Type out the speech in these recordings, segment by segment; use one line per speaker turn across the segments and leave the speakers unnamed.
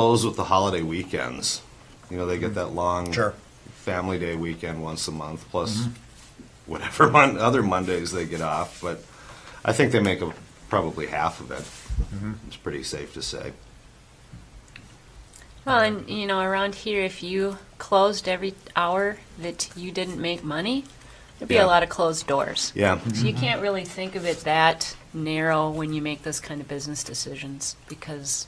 Close with the holiday weekends. You know, they get that long
Sure.
family day weekend once a month, plus whatever mon- other Mondays they get off. But I think they make up probably half of it. It's pretty safe to say.
Well, and you know, around here, if you closed every hour that you didn't make money, there'd be
Yeah.
a lot of closed doors.
Yeah.
So you can't really think of it that narrow when you make those kind of business decisions because,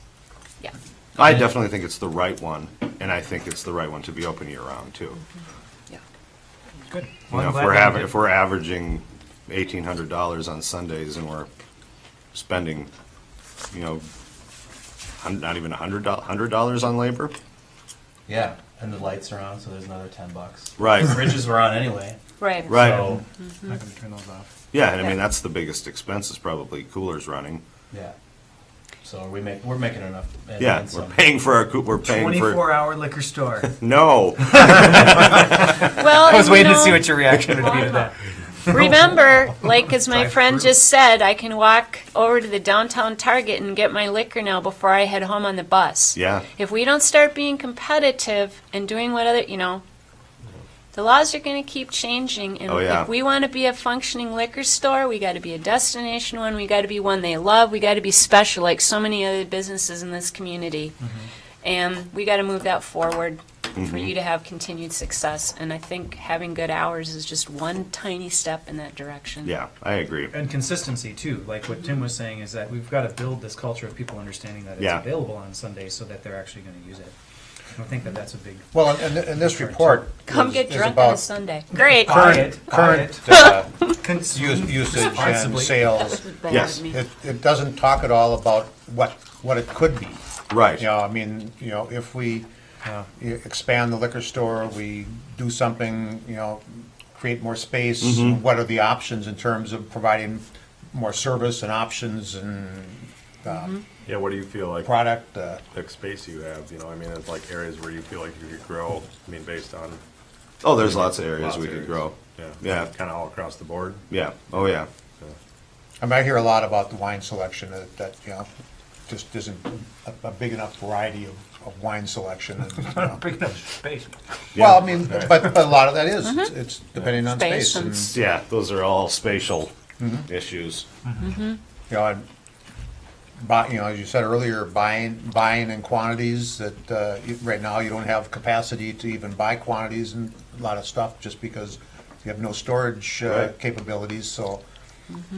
yeah.
I definitely think it's the right one, and I think it's the right one to be open year round too.
Yeah.
Good.
You know, if we're aver- if we're averaging eighteen hundred dollars on Sundays and we're spending, you know, hun- not even a hundred dollars, hundred dollars on labor,
Yeah, and the lights are on, so there's another ten bucks.
Right.
Bridges were on anyway.
Right.
Right.
So,
Not gonna turn those off.
yeah, and I
Yeah.
mean that's the biggest expense is probably coolers running.
yeah. So we make we're making enough. and
Yeah,
then
we're
some.
paying for our coo- we're paying for
hour liquor store.
no.
Well,
I was
and,
waiting
you
to see
know,
what your reaction would be to
Walmart.
that.
Remember, like as my
Drive
friend
through.
just said, I can walk over to the downtown Target and get my liquor now before I head home on the bus.
Yeah.
If we don't start being competitive and doing what other, you know, the laws are going to keep changing. And
Oh, yeah.
if we want to be a functioning liquor store, we got to be a destination one. We got to be one they love. We got to be special, like so many other businesses in this community.
Mm-hmm.
And we got to move that forward for you to have continued success. And I think having good hours is just one tiny step in that direction.
Yeah, I agree.
And consistency too, like what Tim was saying is that we've gotta build this culture of people understanding that it's
Yeah.
available on Sundays so that they're actually gonna use it. I think that that's a big.
Well, and- and, and this report
Come
is-
get
is
drunk on a
about
Sunday. Great.
Buy
current,
it, buy
current uh,
Cons-
use- usage and
Responsibly.
sales.
Bad
Yes.
of me.
It, it doesn't talk at all about what, what it could be.
Right.
You know, I mean, you know, if we uh, e- expand the liquor store, we do something, you know, create more space, what are the options in terms of providing more service and options and
Yeah, what do you feel like,
product? uh,
the space you have, you know, I mean, it's like areas where you feel like you could grow, I mean, based on.
Oh, there's lots of areas
lots
we
of
could
areas.
grow.
Yeah.
Yeah.
Kind of all across the board.
Yeah. Oh yeah.
I mean, I hear a lot about the wine selection, that, that, you know, just isn't a, a big enough variety of, of wine selection. and, you know. Well, I mean, but, but a lot of that is, it's- it's depending on
Space
space
and
and,
s-
Yeah, those are all spatial issues.
you know, and buy, you know, as you said earlier, buying, buying in quantities that, uh, you- right now you don't have capacity to even buy quantities and a lot of stuff just because you have no storage uh,
Right.
capabilities, so,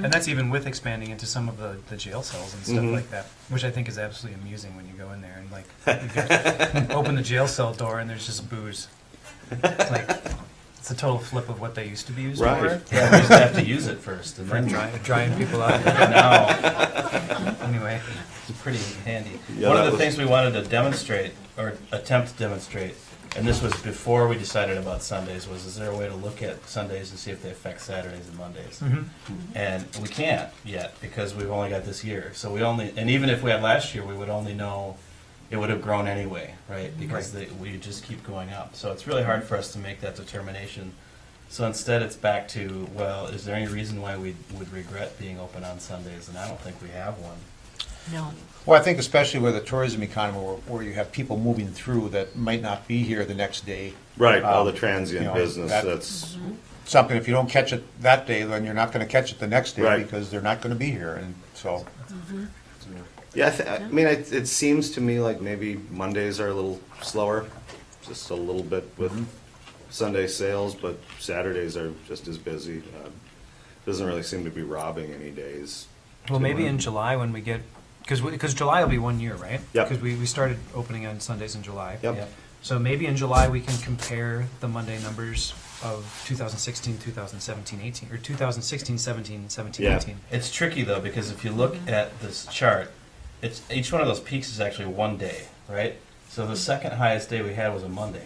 And that's even with expanding into some of the, the jail cells and stuff like that, which I think is absolutely amusing when you go in there and like you got, open the jail cell door and there's just booze. It's like it's a total flip of what they used to be used
Right.
for.
Yeah, we just have to use it first, and
For
then
dry, drying people out.
now
Anyway,
it's pretty handy.
Yeah,
One
that
of the
was-
things we wanted to demonstrate or attempt to demonstrate, and this was before we decided about Sundays, was is there a way to look at Sundays and see if they affect Saturdays and Mondays? And we can't yet because we've only got this year. So we only, and even if we had last year, we would only know, it would have grown anyway, right? Because they, we just keep going up. So it's really hard for us to make that determination. So instead, it's back to, well, is there any reason why we would regret being open on Sundays? And I don't think we have one.
No.
Well, I think especially with the tourism economy, where, where you have people moving through that might not be here the next day.
Right. all
Um,
the transient
you know,
business.
that-
that's
Something, if you don't catch it that day, then you're not gonna catch it the next day
Right.
because they're not gonna be here, and so.
Yeah, I, th- I mean, it, it seems to me like maybe Mondays are a little slower, just a little bit with Sunday sales, but Saturdays are just as busy. Uh, doesn't really seem to be robbing any days.
well,
to
maybe
one.
in July when we get, because because July will be one year, right?
Yep.
Because we, we started opening on Sundays in July.
Yep.
Yep.
So maybe in July we can compare the Monday numbers of 2016, 2017, 18, or 2016, 17, 17,
Yeah.
18.
It's tricky though because if you look at this chart, it's each one of those peaks is actually one day, right? So the second highest day we had was a Monday,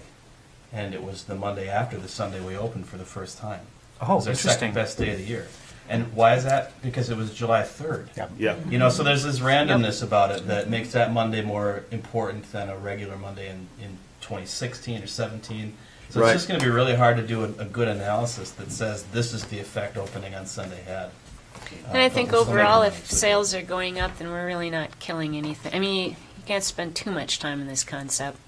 and it was the Monday after the Sunday we opened for the first time.
Oh,
it was our
interesting.
Second best day of the year, and why is that? Because it was July third.
Yeah.
Yeah,
You know, so there's this randomness about it that makes that Monday more important than a regular Monday in, in 2016 or 17. So
Right.
it's just going to be really hard to do a, a good analysis that says this is the effect opening on Sunday had.
And I
Uh,
think
but we're still
overall,
making
if
it.
sales are going up, then we're really not killing anything. I mean, you can't spend too much time on this concept.